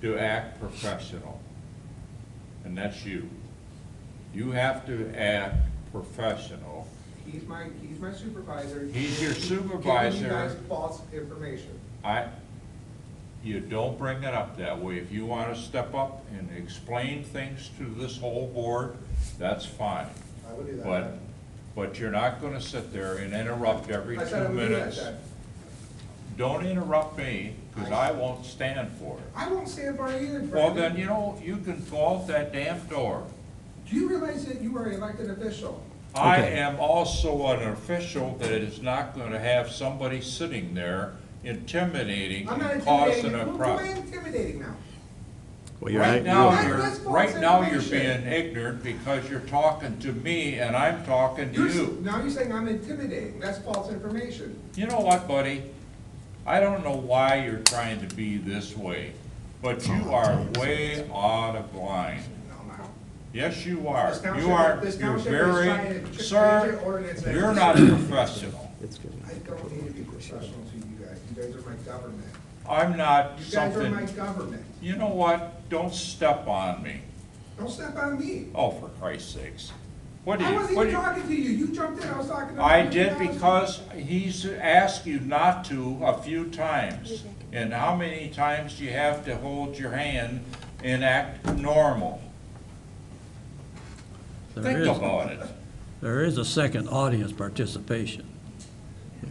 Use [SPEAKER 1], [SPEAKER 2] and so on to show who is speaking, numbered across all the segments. [SPEAKER 1] to act professional, and that's you. You have to act professional.
[SPEAKER 2] He's my, he's my supervisor.
[SPEAKER 1] He's your
[SPEAKER 2] Giving
[SPEAKER 1] supervisor.
[SPEAKER 2] you guys false information.
[SPEAKER 1] I, you don't bring it up that way. If you want to step up and explain things to this whole board, that's fine.
[SPEAKER 2] I would do that.
[SPEAKER 1] But, but you're not going to sit there and interrupt every
[SPEAKER 2] I said I
[SPEAKER 1] two
[SPEAKER 2] would do that,
[SPEAKER 1] minutes.
[SPEAKER 2] Ted.
[SPEAKER 1] Don't interrupt me, because I won't stand for it.
[SPEAKER 2] I won't stand by either, Brandon.
[SPEAKER 1] Well, then, you know, you can go out that damn door.
[SPEAKER 2] Do you realize that you are an elected official?
[SPEAKER 1] I
[SPEAKER 3] Okay.
[SPEAKER 1] am also an official that is not going to have somebody sitting there intimidating
[SPEAKER 2] I'm not
[SPEAKER 1] and causing
[SPEAKER 2] intimidating.
[SPEAKER 1] a
[SPEAKER 2] Who who am I
[SPEAKER 1] problem.
[SPEAKER 2] intimidating now?
[SPEAKER 3] Well, you're,
[SPEAKER 1] Right
[SPEAKER 3] act-
[SPEAKER 1] now,
[SPEAKER 2] you're-
[SPEAKER 1] you're,
[SPEAKER 2] That's false
[SPEAKER 1] right now, you're
[SPEAKER 2] information.
[SPEAKER 1] being ignorant because you're talking to me and I'm talking to
[SPEAKER 2] You're s-
[SPEAKER 1] you.
[SPEAKER 2] Now you're saying I'm intimidating. That's false information.
[SPEAKER 1] You know what, buddy? I don't know why you're trying to be this way, but you are way out of line.
[SPEAKER 2] No, I'm out.
[SPEAKER 1] Yes, you are.
[SPEAKER 2] This township-
[SPEAKER 1] You are,
[SPEAKER 2] this
[SPEAKER 1] you're
[SPEAKER 2] township is trying to
[SPEAKER 1] very,
[SPEAKER 2] ch- change
[SPEAKER 1] sir,
[SPEAKER 2] your ordinance and-
[SPEAKER 1] you're not professional.
[SPEAKER 3] it's good.
[SPEAKER 2] I don't need to be professional to you guys. You guys are my government.
[SPEAKER 1] I'm not
[SPEAKER 2] You guys are my
[SPEAKER 1] something,
[SPEAKER 2] government.
[SPEAKER 1] you know what? Don't step on me.
[SPEAKER 2] Don't step on me.
[SPEAKER 1] Oh, for Christ's sakes. What do
[SPEAKER 2] I
[SPEAKER 1] you,
[SPEAKER 2] wasn't
[SPEAKER 1] what
[SPEAKER 2] even
[SPEAKER 1] do you?
[SPEAKER 2] talking to you. You jumped in. I was talking to.
[SPEAKER 1] I
[SPEAKER 2] you.
[SPEAKER 1] did because he's asked you not to a few times. And how many times do you have to hold your hand and act normal?
[SPEAKER 4] There
[SPEAKER 1] Think
[SPEAKER 4] is-
[SPEAKER 1] about it.
[SPEAKER 4] There is a second audience participation.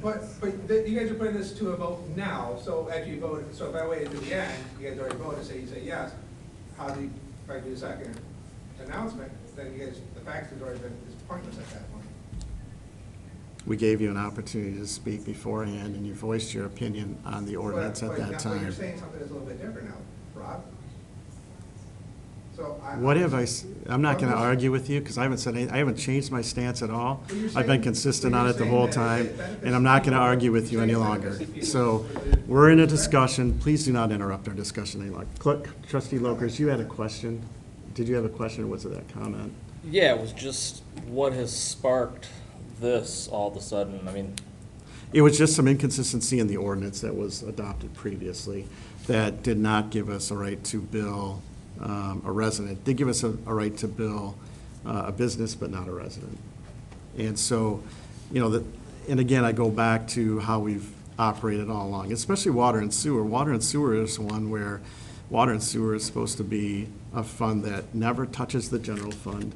[SPEAKER 2] But, but th- you guys are putting this to a vote now, so after you vote, so if I waited to the end, you guys already voted, say you say yes, how do you, if I do the second announcement, then you guys, the facts has already been, is pointless at that point.
[SPEAKER 3] We gave you an opportunity to speak beforehand, and you voiced your opinion on the ordinance
[SPEAKER 2] But-
[SPEAKER 3] at
[SPEAKER 2] but now-
[SPEAKER 3] that
[SPEAKER 2] But you're
[SPEAKER 3] time.
[SPEAKER 2] saying something that's a little bit different now, Rob. So I.
[SPEAKER 3] What have I, s- I'm not gonna argue with you, because I haven't said, any- I haven't changed my stance at all.
[SPEAKER 2] Well, you're
[SPEAKER 3] I've
[SPEAKER 2] saying-
[SPEAKER 3] been consistent
[SPEAKER 2] well,
[SPEAKER 3] on
[SPEAKER 2] you're
[SPEAKER 3] it the
[SPEAKER 2] saying
[SPEAKER 3] whole
[SPEAKER 2] that it
[SPEAKER 3] time,
[SPEAKER 2] benefits
[SPEAKER 3] and I'm not gonna
[SPEAKER 2] people.
[SPEAKER 3] argue with you
[SPEAKER 2] You're
[SPEAKER 3] any
[SPEAKER 2] saying it
[SPEAKER 3] longer.
[SPEAKER 2] benefits people.
[SPEAKER 3] So, we're in a discussion, please do not interrupt our discussion any longer. Clerk, trustee Locust, you had a question? Did you have a question, or was it that comment?
[SPEAKER 5] Yeah, it was just what has sparked this all of a sudden. I mean,
[SPEAKER 3] It was just some inconsistency in the ordinance that was adopted previously that did not give us a right to bill um, a resident. Did give us a, a right to bill uh, a business, but not a resident. And so, you know, that, and again, I go back to how we've operated all along, especially water and sewer. Water and sewer is one where water and sewer is supposed to be a fund that never touches the general fund,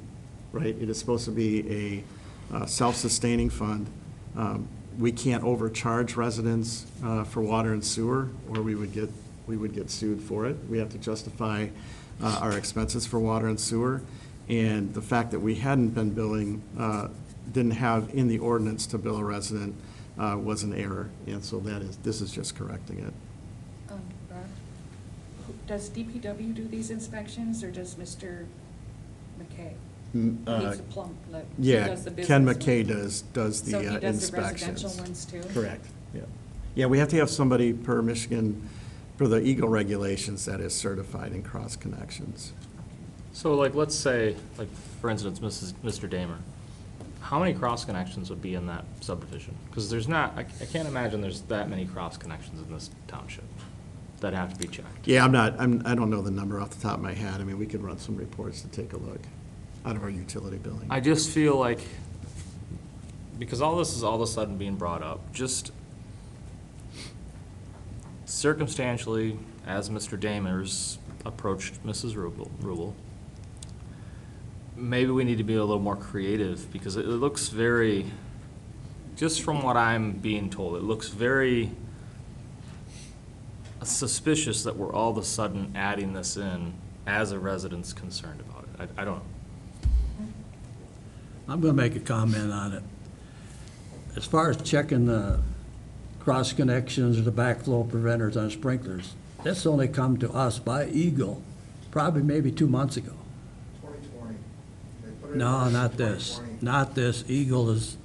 [SPEAKER 3] right? It is supposed to be a uh, self-sustaining fund. Um, We can't overcharge residents uh, for water and sewer, or we would get, we would get sued for it. We have to justify uh, our expenses for water and sewer. And the fact that we hadn't been billing, uh, didn't have in the ordinance to bill a resident uh, was an error. And so that is, this is just correcting it.
[SPEAKER 6] Um, Rob, who- Does DPW do these inspections, or does Mr. McKay?
[SPEAKER 3] Mm, uh,
[SPEAKER 6] He's a plump, like, he
[SPEAKER 3] Yeah,
[SPEAKER 6] does the business
[SPEAKER 3] Ken
[SPEAKER 6] one.
[SPEAKER 3] McKay does, does the
[SPEAKER 6] So he
[SPEAKER 3] uh,
[SPEAKER 6] does the residential
[SPEAKER 3] inspections.
[SPEAKER 6] ones too?
[SPEAKER 3] Correct, yeah. Yeah, we have to have somebody per Michigan, per the Eagle regulations that is certified in cross connections.
[SPEAKER 5] so like, let's say, like, for instance, Mrs., Mr. Damer, how many cross connections would be in that subdivision? Because there's not, I, I can't imagine there's that many cross connections in this township that have to be checked.
[SPEAKER 3] Yeah, I'm not, I'm, I don't know the number off the top of my head. I mean, we could run some reports to take a look out of our utility billing.
[SPEAKER 5] I just feel like, because all this is all of a sudden being brought up, just circumstantially, as Mr. Damers approached Mrs. Rubel, Rubel, maybe we need to be a little more creative, because it, it looks very, just from what I'm being told, it looks very suspicious that we're all of a sudden adding this in as a resident's concerned about it. I, I don't know.
[SPEAKER 4] I'm going to make a comment on it. As far as checking the cross connections or the backflow preventers on sprinklers, that's only come to us by Eagle, probably maybe two months ago.
[SPEAKER 2] Twenty twenty.
[SPEAKER 4] No, not this, not this. Eagle is,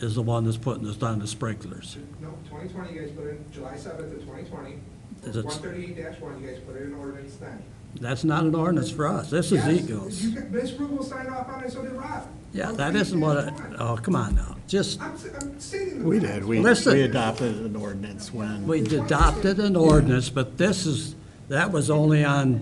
[SPEAKER 4] is the one that's putting this on the sprinklers.
[SPEAKER 2] No, twenty twenty, you guys put in July seventh of twenty twenty.
[SPEAKER 4] Is it-
[SPEAKER 2] One thirty-eight one, you guys put it in ordinance then.
[SPEAKER 4] That's not an ordinance for us. This is
[SPEAKER 2] Yes,
[SPEAKER 4] Eagle's.
[SPEAKER 2] You, got- Ms. Rubel signed off on it, so did Rob.
[SPEAKER 4] Yeah,
[SPEAKER 2] Well,
[SPEAKER 4] that
[SPEAKER 2] we
[SPEAKER 4] isn't
[SPEAKER 2] did
[SPEAKER 4] what,
[SPEAKER 2] it.
[SPEAKER 4] I- oh, come on now. Just,
[SPEAKER 2] I'm, s- I'm stating. the
[SPEAKER 3] We
[SPEAKER 2] facts.
[SPEAKER 3] did, we,
[SPEAKER 4] Listen.
[SPEAKER 3] we adopted an ordinance when.
[SPEAKER 4] we adopted an ordinance, but this is, that was only on